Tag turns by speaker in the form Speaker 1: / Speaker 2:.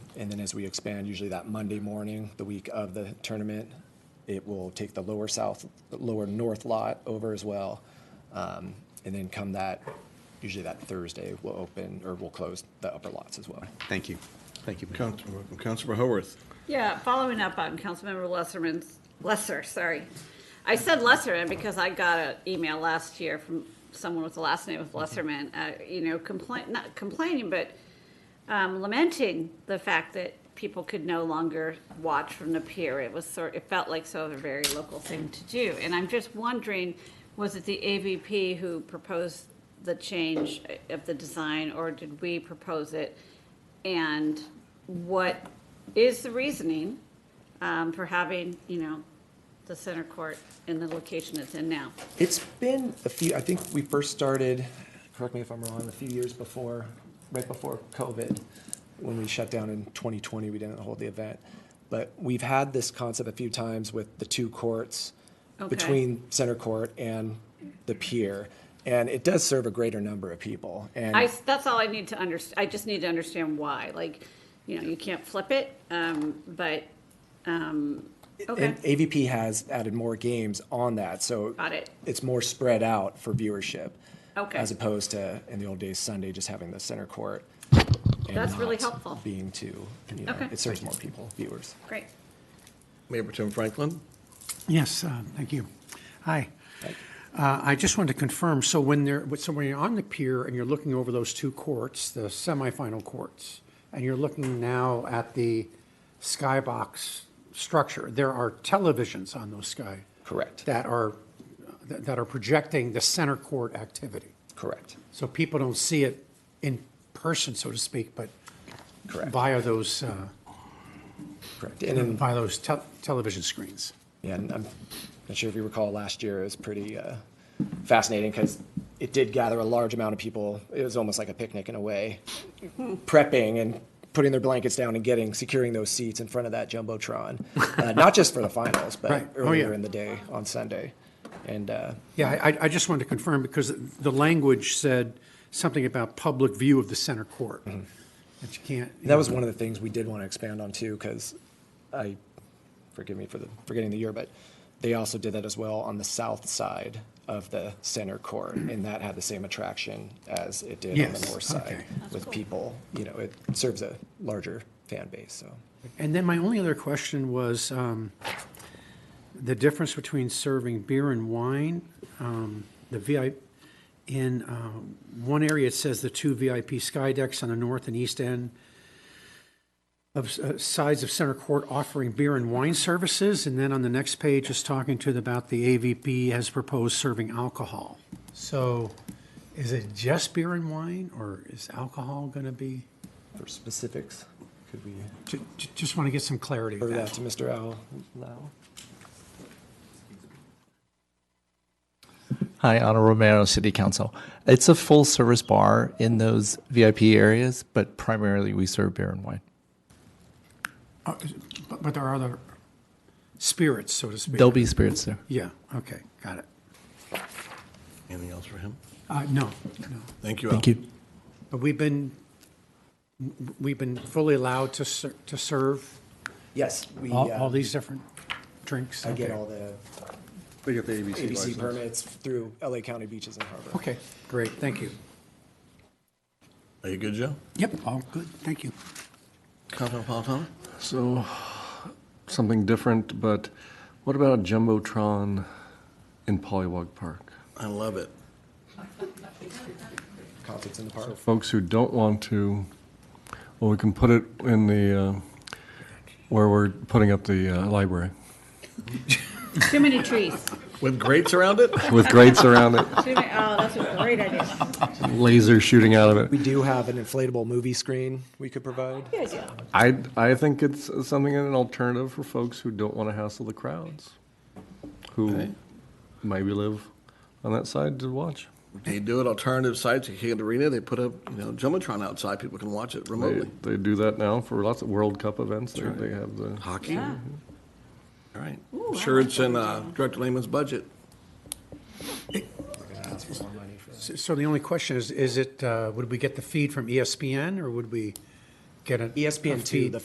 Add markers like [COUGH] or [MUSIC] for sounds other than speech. Speaker 1: And then as we expand, usually that Monday morning, the week of the tournament, it will take the lower south, lower north lot over as well. Um, And then come that, usually that Thursday, we'll open, or we'll close the upper lots as well.
Speaker 2: Thank you. Thank you. Mayor.
Speaker 3: Councilman, welcome. Councilman Haworth.
Speaker 4: Yeah, following up on Councilmember Lesserman's, Lesser, sorry. I said Lesserman because I got an email last year from someone with the last name of Lesserman, uh, you know, complain, not complaining, but um, lamenting the fact that people could no longer watch from the pier. It was sort, it felt like sort of a very local thing to do. And I'm just wondering, was it the AVP who proposed the change of the design, or did we propose it? And what is the reasoning um, for having, you know, the center court in the location it's in now?
Speaker 1: It's been a few, I think we first started, correct me if I'm wrong, a few years before, right before COVID, when we shut down in 2020, we didn't hold the event. But we've had this concept a few times with the two courts
Speaker 4: Okay.
Speaker 1: between center court and the pier. And it does serve a greater number of people. And
Speaker 4: I, that's all I need to under, I just need to understand why, like, you know, you can't flip it, um, but, um, okay,
Speaker 1: And AVP has added more games on that, so.
Speaker 4: Got it.
Speaker 1: It's more spread out for viewership.
Speaker 4: Okay.
Speaker 1: As opposed to, in the old days, Sunday, just having the center court. and
Speaker 4: That's really
Speaker 1: not
Speaker 4: helpful.
Speaker 1: Being two, you know,
Speaker 4: Okay.
Speaker 1: it serves more people, viewers.
Speaker 4: great.
Speaker 3: Mayor Pro Tem Franklin.
Speaker 5: Yes, uh, thank you. Hi. Uh, I just wanted to confirm, so when there, so when you're on the pier and you're looking over those two courts, the semifinal courts, and you're looking now at the skybox structure, there are televisions on those sky.
Speaker 1: Correct.
Speaker 5: That are, that that are projecting the center court activity.
Speaker 1: Correct.
Speaker 5: So people don't see it in person, so to speak, but
Speaker 1: Correct.
Speaker 5: via those, uh,
Speaker 1: Correct. And then,
Speaker 5: via those tel- television screens.
Speaker 1: yeah, and I'm not sure if you recall, last year it was pretty uh, fascinating because it did gather a large amount of people. It was almost like a picnic in a way, prepping and putting their blankets down and getting, securing those seats in front of that Jumbotron. Uh, Not just for the finals, but
Speaker 5: [LAUGHS] Right. Oh,
Speaker 1: earlier
Speaker 5: yeah.
Speaker 1: in the day on Sunday. And, uh,
Speaker 5: Yeah, I, I just wanted to confirm because the language said something about public view of the center court. That you can't.
Speaker 1: That was one of the things we did want to expand on too, because I, forgive me for the, forgetting the year, but they also did that as well on the south side of the center court, and that had the same attraction as it did on the
Speaker 5: Yes,
Speaker 1: north side
Speaker 5: okay.
Speaker 1: with people, you know, it serves a larger fan base, so.
Speaker 5: And then my only other question was um, the difference between serving beer and wine. Um, the VIP in um, one area it says the two VIP sky decks on the north and east end of uh, sides of center court offering beer and wine services, and then on the next page is talking to the, about the AVP has proposed serving alcohol. So, is it just beer and wine, or is alcohol going to be?
Speaker 1: For specifics, could we
Speaker 5: ju- ju- Just want to get some clarity.
Speaker 1: refer
Speaker 5: there.
Speaker 1: that to Mr. Al now?
Speaker 6: Hi, Ana Romero, City Council. It's a full service bar in those VIP areas, but primarily we serve beer and wine.
Speaker 5: Uh, But but there are other spirits, so to speak.
Speaker 6: There'll be spirits there.
Speaker 5: Yeah, okay, got it.
Speaker 3: Anything else for him?
Speaker 5: Uh, No, no.
Speaker 3: Thank you.
Speaker 6: Thank
Speaker 3: Al.
Speaker 6: you.
Speaker 5: But we've been, we've been fully allowed to ser- to serve
Speaker 1: Yes, we,
Speaker 5: all all
Speaker 1: uh,
Speaker 5: these different drinks?
Speaker 1: I get
Speaker 5: Okay.
Speaker 1: all the
Speaker 3: We got the ABC
Speaker 1: ABC
Speaker 3: license.
Speaker 1: permits through LA County Beaches and Harbor.
Speaker 5: Okay, great, thank you.
Speaker 3: Are you good, Joe?
Speaker 5: Yep, all good, thank you.
Speaker 3: Councilman Palatano?
Speaker 7: So, something different, but what about a Jumbotron in Polywog Park?
Speaker 3: I love it.
Speaker 1: Concerts in the park.
Speaker 7: Folks who don't want to, well, we can put it in the, uh, where we're putting up the uh, library
Speaker 4: Too many trees.
Speaker 3: With grates around it?
Speaker 7: with grates around it,
Speaker 4: Too many, oh, that's a great idea.
Speaker 7: laser shooting out of
Speaker 1: We
Speaker 7: it.
Speaker 1: do have an inflatable movie screen we could provide.
Speaker 4: Good idea.
Speaker 7: I, I think it's something, an alternative for folks who don't want to hassle the crowds, who maybe live on that side to watch.
Speaker 3: They do it alternative sites. You can't arena. They put up, you know, Jumbotron outside. People can watch it
Speaker 7: They,
Speaker 3: remotely.
Speaker 7: they do that now for lots of World Cup events. They, they have the.
Speaker 3: Hockey.
Speaker 4: Yeah.
Speaker 3: All right.
Speaker 4: Ooh, I
Speaker 3: Sure,
Speaker 4: like
Speaker 3: it's in
Speaker 4: that
Speaker 3: uh,
Speaker 4: idea.
Speaker 3: Director Lehman's budget.
Speaker 5: So so the only question E is, is it, uh, would we get the feed from ESPN, or would we get an? a
Speaker 1: ESPN two,
Speaker 5: feed
Speaker 1: the